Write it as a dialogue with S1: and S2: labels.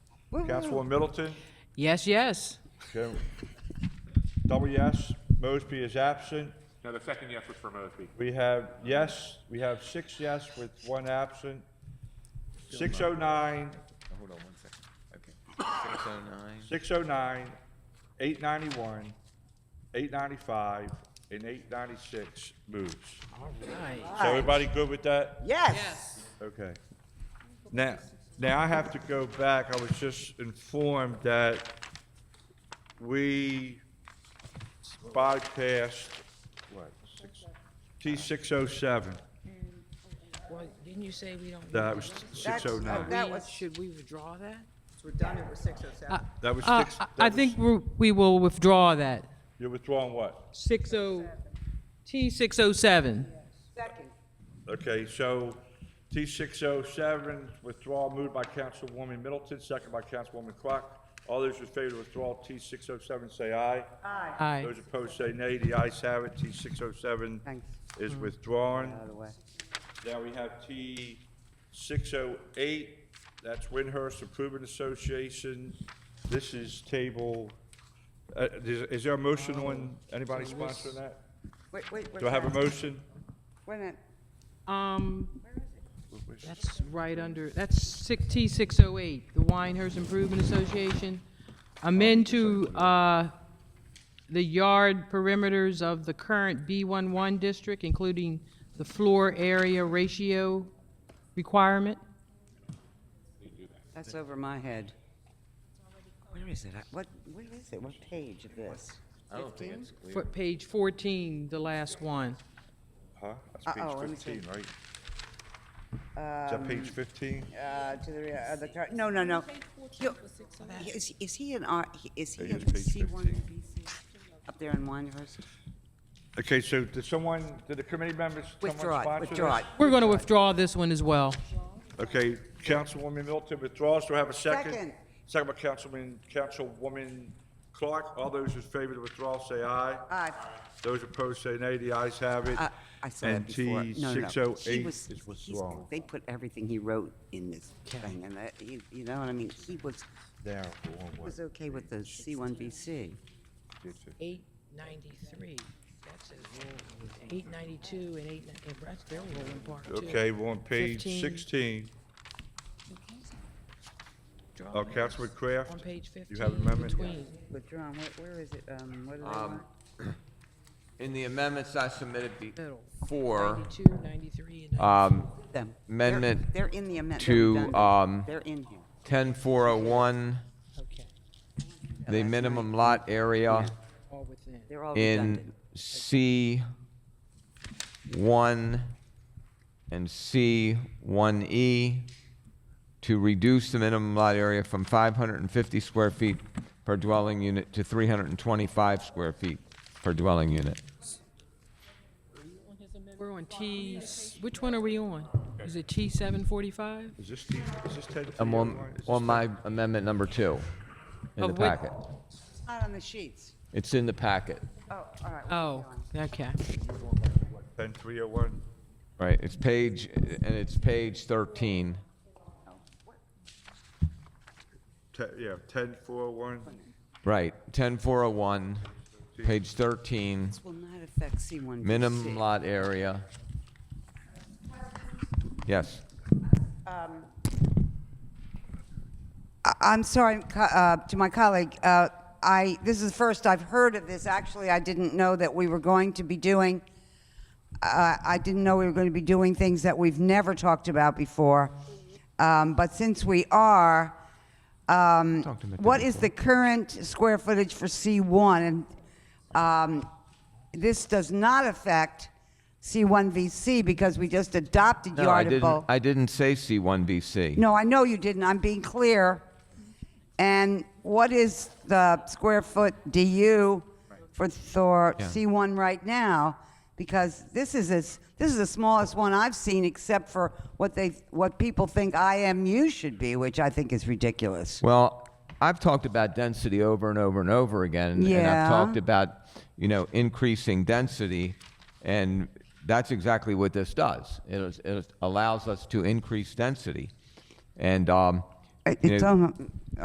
S1: Councilwoman Middleton,
S2: Yes, yes.
S1: okay. double yes, Mosby is absent.
S3: No, the second yes was for Mosby.
S1: We have yes, we have six yes with one absent. Six oh nine,
S4: Hold on one second. Okay. Six oh nine.
S1: six oh nine, eight ninety-one, eight ninety-five, and eight ninety-six moves.
S2: Right.
S1: So everybody good with that?
S5: Yes.
S2: Yes.
S1: Okay. Now, now I have to go back. I was just informed that we bypassed, what, six, T six oh seven.
S6: Well, didn't you say we don't?
S1: That was six oh nine.
S5: That was-
S6: Should we withdraw that?
S5: It's redundant with six oh seven.
S1: That was
S2: Uh,
S1: six.
S2: I-
S1: that
S2: I
S1: was-
S2: think we're- we will withdraw that.
S1: You're withdrawing what?
S2: 60, T607.
S5: Second.
S1: Okay, so T six oh seven, withdrawal moved by Councilwoman Middleton, second by Councilwoman Clark. All those in favor of withdrawal T six oh seven, say aye.
S5: Aye.
S2: Aye.
S1: Those opposed say nay. The ayes have it. T six oh seven
S5: Thanks.
S1: is withdrawn.
S5: By the way.
S1: Now we have T six oh eight. That's Windhurst Improvement Association. This is table, uh, is, is there a motion
S5: Um,
S1: on, anybody sponsoring that?
S5: Wait, wait, wait.
S1: Do I have a
S5: wait.
S1: motion?
S5: Wait a minute.
S2: Um, that's right under, that's six- T608, the Winehurst Improvement Association. Amend to uh, the yard perimeters of the current B11 district, including the floor area ratio requirement.
S5: That's over my head. Where is it? I- What, what is it? What page of this?
S4: I don't think it's clear.
S2: For- Page 14, the last one.
S1: Huh? That's
S5: Uh-oh, Uh, oh, let
S1: page
S5: me see.
S1: fifteen, right? Is that page fifteen?
S5: Um, Uh, to the, uh, the, car- no, no, no. You- Is, is he an R, is he
S1: It is
S5: in
S1: page
S5: C one
S1: 15.
S5: up there in Winehurst?
S1: Okay, so did someone, did the committee members, someone
S5: Withdraw it,
S1: sponsor
S5: withdraw
S1: this?
S5: it.
S2: We're going to withdraw this one as well.
S1: Okay, Councilwoman Middleton withdraws, do I have a second?
S5: Second.
S1: Second by Councilman, Councilwoman Clark, all those in favor of the withdrawal say aye.
S5: Aye.
S1: Those opposed say nay, the ayes have it.
S5: I I saw that before.
S1: And T
S5: No, no, no.
S1: six oh
S5: He
S1: eight
S5: was-
S1: is
S5: he's-
S1: withdrawn.
S5: They put everything he wrote in this thing, and that, you you know what I mean? He was,
S1: There, one,
S5: he
S1: one,
S5: was okay with the C1BC.
S1: two, two.
S6: Eight ninety-three, that's his rule. Eight ninety-two and eight, and that's their rule in part two.
S1: Okay, we're on page
S2: 15.
S1: sixteen.
S6: Withdraw
S1: Uh,
S6: this.
S1: Councilman Kraft?
S6: On page
S1: you have an
S6: fifteen,
S1: amendment?
S6: between.
S5: Withdrawn, Where- where is it? Um, What do they
S4: Um,
S5: want?
S4: In the amendments I submitted
S6: Middle.
S4: before,
S6: 92, 93, and
S1: Uh.
S4: um,
S5: Them. They're-
S4: amendment
S5: They're in the amendment.
S4: to, um,
S5: They're in here.
S4: ten four oh one,
S6: okay,
S4: the minimum lot area
S6: all within.
S5: They're all
S4: in
S5: redundant.
S4: C one and C one E to reduce the minimum lot area from five hundred and fifty square feet per dwelling unit to three hundred and twenty-five square feet per dwelling unit.
S2: We're on T, which one are we on? Is it T745?
S1: Is this, T- is this ten? oh
S4: I'm on, on my amendment number two in the
S2: Of which-
S4: packet.
S5: It's not on the sheets.
S4: It's in the packet,
S5: Oh, all right. we're
S2: Oh,
S5: on.
S2: okay.
S1: Ten three oh one.
S4: right? It's page, and it's page 13.
S1: Ten yeah, ten four oh one.
S4: Right, 10401, page 13,
S5: This will not affect C1BC.
S4: minimum lot area. Yes.
S5: I- I'm sorry co- uh, to my colleague. Uh, I, this is the first I've heard of this. Actually, I didn't know that we were going to be doing, uh, I didn't know we were going to be doing things that we've never talked about before. Um, But since we are, um,
S4: Talked about that
S5: what is the current square footage for C1? And um, This does not affect C1VC because we just adopted
S4: No, I
S5: yard
S4: didn't, I didn't say C1VC.
S5: no, I know you didn't. I'm being clear. And what is the square foot DU for Thor
S4: Yeah.
S5: C1 right now? Because this is as, this is the smallest one I've seen, except for what they what people think IMU should be, which I think is ridiculous.
S4: Well, I've talked about density over and over and over again, and, and
S5: Yeah.
S4: I've talked about you know increasing density, and that's exactly what this does. It, is, it allows us to increase density, and um,
S5: It-
S4: you
S5: It's
S4: know,
S5: almo-